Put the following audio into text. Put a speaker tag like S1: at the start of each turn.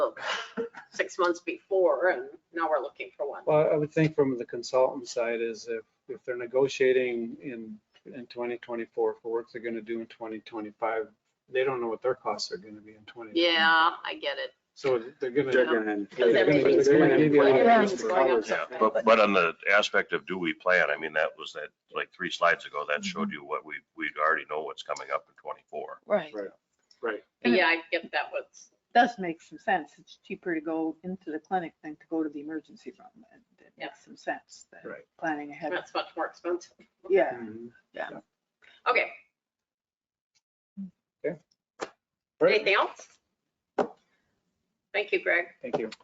S1: six months before and now we're looking for one.
S2: Well, I would think from the consultant side is if, if they're negotiating in, in 2024 for work they're going to do in 2025, they don't know what their costs are going to be in 20.
S1: Yeah, I get it.
S2: So they're going
S3: They're
S2: to,
S3: gonna.
S1: Because
S2: they're going to,
S1: everything's
S2: they're going to
S1: going
S2: give you. a lot
S1: up.
S2: of different
S1: Everything's going up.
S2: colors.
S4: Yeah, but, but on the aspect of do we plan, I mean, that was that, like, three slides ago, that showed you what we, we already know what's coming up in twenty-four.
S5: Right,
S3: Right.
S1: But Yeah, I get that was,
S5: does make some sense. It's cheaper to go into the clinic than to go to the emergency room. and It
S1: Yeah.
S5: makes some sense, that
S2: Right.
S5: planning ahead,
S1: that's much more expensive.
S5: yeah.
S2: Mhm.
S1: Okay,
S2: All right.
S1: anything else? Thank you, Greg.
S2: Thank you.